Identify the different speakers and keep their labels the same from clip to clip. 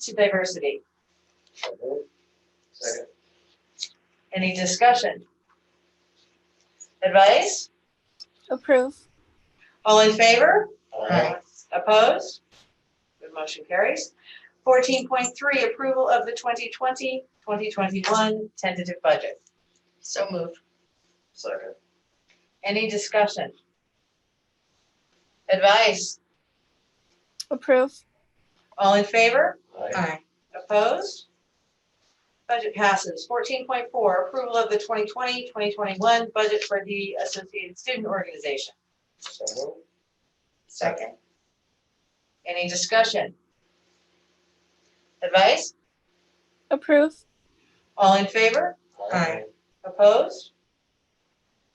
Speaker 1: to diversity.
Speaker 2: So moved. Second.
Speaker 1: Any discussion? Advice?
Speaker 3: Approve.
Speaker 1: All in favor?
Speaker 2: Aye.
Speaker 1: Opposed? The motion carries. Fourteen point three, approval of the 2020-2021 tentative budget. So moved.
Speaker 2: Second.
Speaker 1: Any discussion? Advice?
Speaker 3: Approve.
Speaker 1: All in favor?
Speaker 2: Aye.
Speaker 1: Opposed? Budget passes. Fourteen point four, approval of the 2020-2021 budget for the Associated Student Organization.
Speaker 2: So moved.
Speaker 1: Second. Any discussion? Advice?
Speaker 3: Approve.
Speaker 1: All in favor?
Speaker 2: Aye.
Speaker 1: Opposed?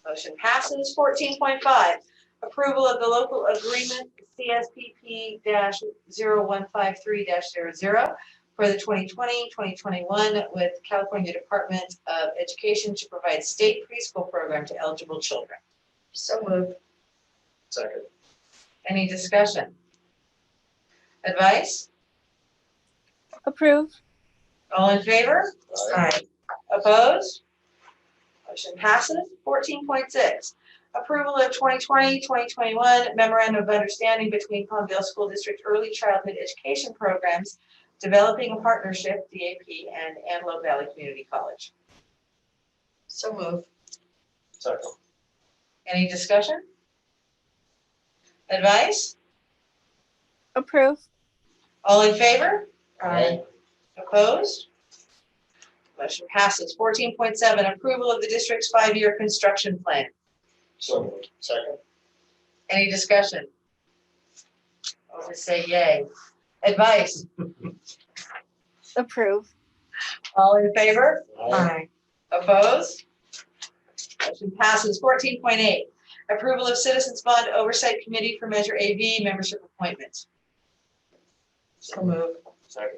Speaker 1: Motion passes. Fourteen point five, approval of the local agreement CSPP 15 zero one five three 0 for the 2020-2021 with California Department of Education to provide state preschool program to eligible children. So moved.
Speaker 2: Second.
Speaker 1: Any discussion? Advice?
Speaker 3: Approve.
Speaker 1: All in favor?
Speaker 2: Aye.
Speaker 1: Opposed? Motion passes. Fourteen point six, approval of 2020-2021 memorandum of understanding between Palmdale School District Early Childhood Education Programs, Developing a Partnership, DAP, and Antelope Valley Community College. So move.
Speaker 2: Second.
Speaker 1: Any discussion? Advice?
Speaker 3: Approve.
Speaker 1: All in favor?
Speaker 2: Aye.
Speaker 1: Opposed? Motion passes. Fourteen point seven, approval of the district's five-year construction plan.
Speaker 2: So moved. Second.
Speaker 1: Any discussion? I'll just say yay. Advice?
Speaker 3: Approve.
Speaker 1: All in favor?
Speaker 2: Aye.
Speaker 1: Opposed? Motion passes. Fourteen point eight, approval of Citizens Bond Oversight Committee for Measure AV membership appointments. So moved.
Speaker 2: Second.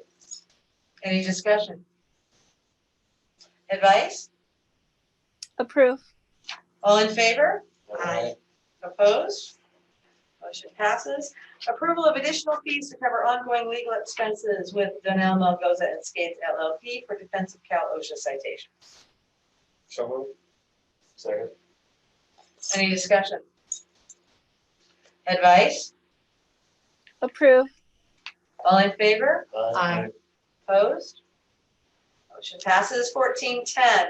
Speaker 1: Any discussion? Advice?
Speaker 3: Approve.
Speaker 1: All in favor?
Speaker 2: Aye.
Speaker 1: Opposed? Motion passes. Approval of additional fees to cover ongoing legal expenses with Donnell Melgoza and Skates LLP for defense of Cal OSHA citation.
Speaker 2: So moved. Second.
Speaker 1: Any discussion? Advice?
Speaker 3: Approve.
Speaker 1: All in favor?
Speaker 2: Aye.
Speaker 1: Opposed? Motion passes. Fourteen ten,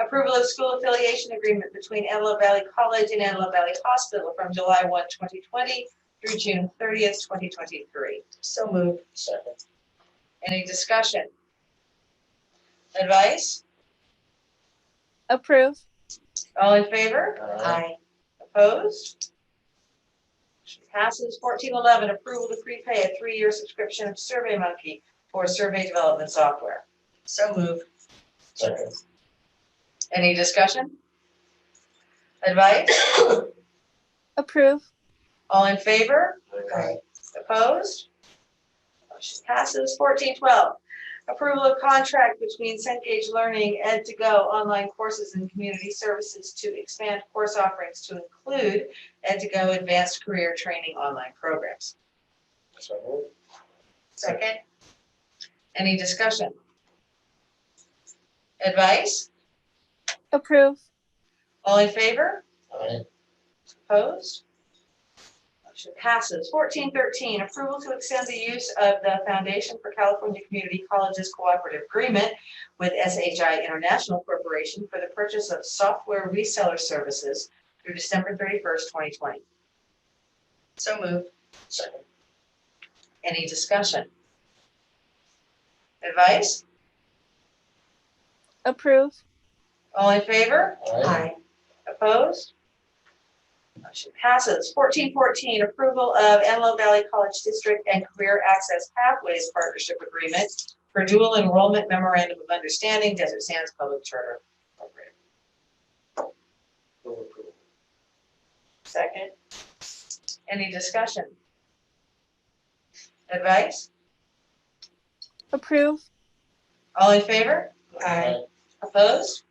Speaker 1: approval of school affiliation agreement between Antelope Valley College and Antelope Valley Hospital from July 1, 2020 through June thirtieth, twenty twenty-three. So moved.
Speaker 2: Second.
Speaker 1: Any discussion? Advice?
Speaker 3: Approve.
Speaker 1: All in favor?
Speaker 2: Aye.
Speaker 1: Opposed? Motion Passes fourteen eleven, approval to prepay a three-year subscription of SurveyMonkey for survey development software. So moved.
Speaker 2: Second.
Speaker 1: Any discussion? Advice?
Speaker 3: Approve.
Speaker 1: All in favor?
Speaker 2: Aye.
Speaker 1: Opposed? Motion passes. Fourteen twelve, approval of contract between Cengage Learning Ed to Go online courses and community services to expand course offerings to include Ed to Go advanced career training online programs.
Speaker 2: So moved.
Speaker 1: Second. Any discussion? Advice?
Speaker 3: Approve.
Speaker 1: All in favor?
Speaker 2: Aye.
Speaker 1: Opposed? Motion passes. Fourteen thirteen, approval to extend the use of the Foundation for California Community Colleges Cooperative Agreement with SHI International Corporation for the purchase of software reseller services through December thirty-first, twenty twenty. So moved.
Speaker 2: Second.
Speaker 1: Any discussion? Advice?
Speaker 3: Approve.
Speaker 1: All in favor?
Speaker 2: Aye.
Speaker 1: Opposed? Motion passes. Fourteen fourteen, approval of Antelope Valley College District and Career Access Pathways Partnership Agreement for Dual Enrollment Memorandum of Understanding, Desert Sands Public Charter Program.
Speaker 2: Move approval.
Speaker 1: Second. Any discussion? Advice?
Speaker 3: Approve.
Speaker 1: All in favor?
Speaker 2: Aye.
Speaker 1: Opposed?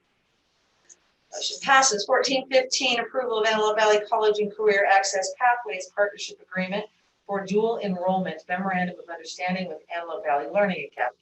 Speaker 1: Motion passes. Fourteen fifteen, approval of Antelope Valley College and Career Access Pathways Partnership Agreement for dual enrollment memorandum of understanding with Antelope Valley Learning Academy.